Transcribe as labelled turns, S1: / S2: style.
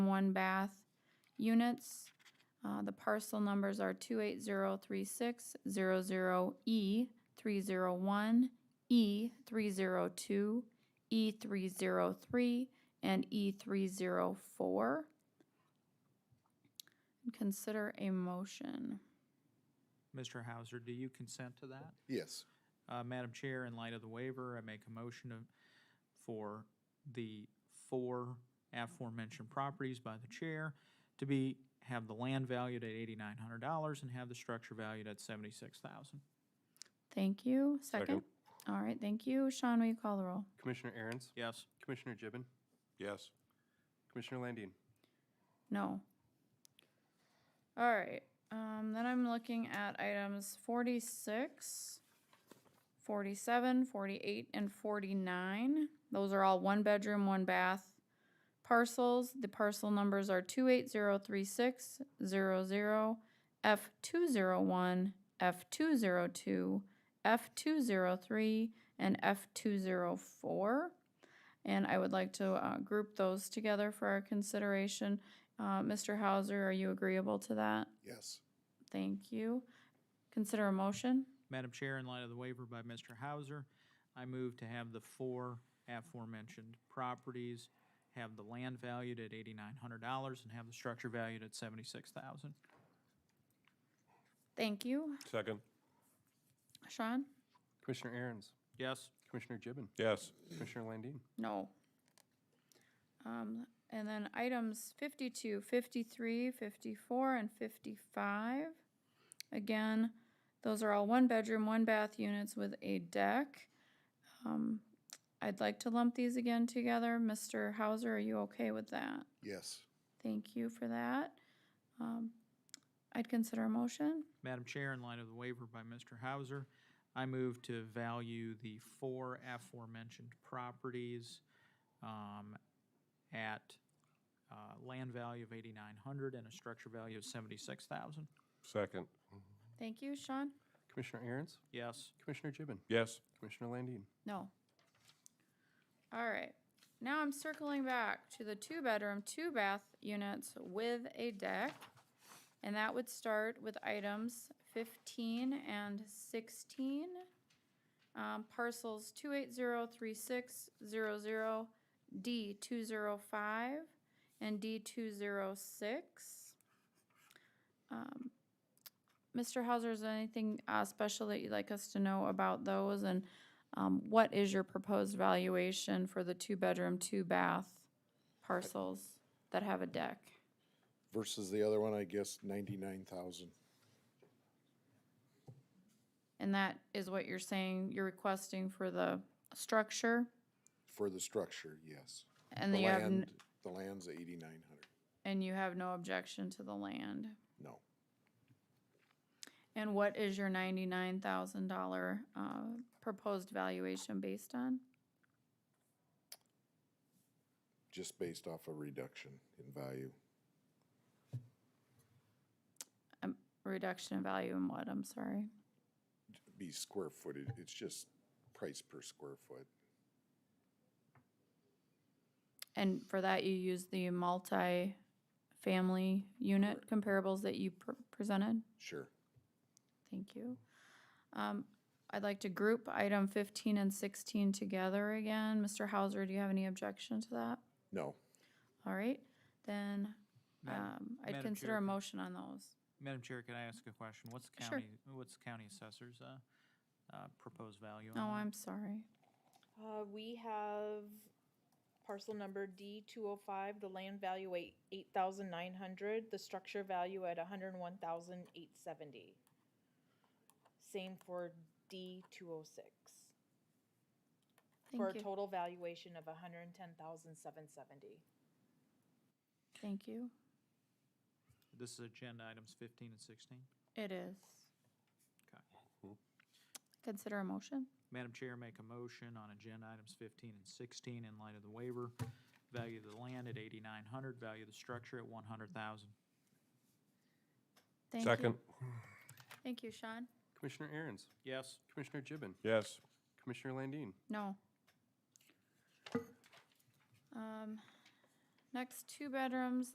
S1: one bath units. Uh, the parcel numbers are two eight zero three six zero zero E three zero one, E three zero two, E three zero three, and E three zero four. Consider a motion.
S2: Mr. Hauser, do you consent to that?
S3: Yes.
S2: Uh, Madam Chair, in light of the waiver, I make a motion of- for the four aforementioned properties by the chair to be, have the land valued at eighty-nine hundred dollars and have the structure valued at seventy-six thousand.
S1: Thank you. Second?
S4: Second.
S1: All right, thank you. Sean, will you call the roll?
S4: Commissioner Aaron's,
S2: Yes.
S4: Commissioner Gibbon,
S3: Yes.
S4: Commissioner Landine,
S1: No. All right, um, then I'm looking at items 46, 47, 48, and forty-nine. Those are all one-bedroom, one-bath parcels. The parcel numbers are two eight zero three six zero zero, F two zero one, F two zero two, F two zero three, and F two zero four. And I would like to, uh, group those together for our consideration. Uh, Mr. Hauser, are you agreeable to that?
S3: Yes.
S1: Thank you. Consider a motion.
S2: Madam Chair, in light of the waiver by Mr. Hauser, I move to have the four aforementioned properties have the land valued at eighty-nine hundred dollars and have the structure valued at seventy-six thousand.
S1: Thank you.
S5: Second.
S1: Sean?
S4: Commissioner Aaron's,
S2: Yes.
S4: Commissioner Gibbon,
S5: Yes.
S4: Commissioner Landine,
S1: No. Um, and then items 52, 53, 54, and fifty-five. Again, those are all one-bedroom, one-bath units with a deck. Um, I'd like to lump these again together. Mr. Hauser, are you okay with that?
S3: Yes.
S1: Thank you for that. Um, I'd consider a motion.
S2: Madam Chair, in light of the waiver by Mr. Hauser, I move to value the four aforementioned properties um, at uh, land value of 8,900 and a structure value of 76,000.
S5: Second.
S1: Thank you, Sean.
S4: Commissioner Aaron's,
S2: Yes.
S4: Commissioner Gibbon,
S5: Yes.
S4: Commissioner Landine,
S1: No. All right. Now I'm circling back to the two-bedroom, two-bath units with a deck. And that would start with items fifteen and sixteen. Um, parcels two eight zero three six zero zero, D two zero five, and D two zero six. Mr. Hauser, is there anything, uh, special that you'd like us to know about those? And um, what is your proposed valuation for the two-bedroom, two-bath parcels that have a deck?
S3: Versus the other one, I guess ninety-nine thousand.
S1: And that is what you're saying, you're requesting for the structure?
S3: For the structure, yes.
S1: And
S3: The
S1: you have,
S3: land,
S1: n-
S3: the land's eighty-nine hundred.
S1: and you have no objection to the land?
S3: No.
S1: And what is your ninety-nine thousand dollar, uh, proposed valuation based on?
S3: Just based off a reduction in value.
S1: Reduction in value in what, I'm sorry?
S3: Be square footed, it's just price per square foot.
S1: And for that, you use the multi-family unit comparables that you pr- presented?
S3: Sure.
S1: Thank you. Um, I'd like to group item fifteen and sixteen together again. Mr. Hauser, do you have any objection to that?
S3: No.
S1: All right, then,
S2: Madam-
S1: um, I'd
S2: Madam
S1: consider
S2: Chair,
S1: a
S2: can-
S1: motion on those.
S2: Madam Chair, could I ask a question? What's the
S1: Sure.
S2: county, what's the county assessor's uh, uh, proposed value on
S1: Oh,
S2: that?
S1: I'm sorry.
S6: Uh, we have parcel number D two oh five, the land value at eight thousand nine hundred, the structure value at a hundred and one thousand eight seventy. Same for D two oh six, for a
S1: Thank you,
S6: total valuation of a hundred and ten thousand seven seventy.
S1: thank you.
S2: This is agenda items 15 and 16.
S1: It is.
S2: Okay.
S1: Consider a motion.
S2: Madam Chair, make a motion on agenda items 15 and 16 in light of the waiver. Value the land at 8,900, value the structure at 100,000.
S1: Thank you.
S5: Second.
S1: Thank you, Sean.
S4: Commissioner Aaron's,
S2: Yes.
S4: Commissioner Gibbon,
S5: Yes.
S4: Commissioner Landine,
S1: No. Um, next two bedrooms,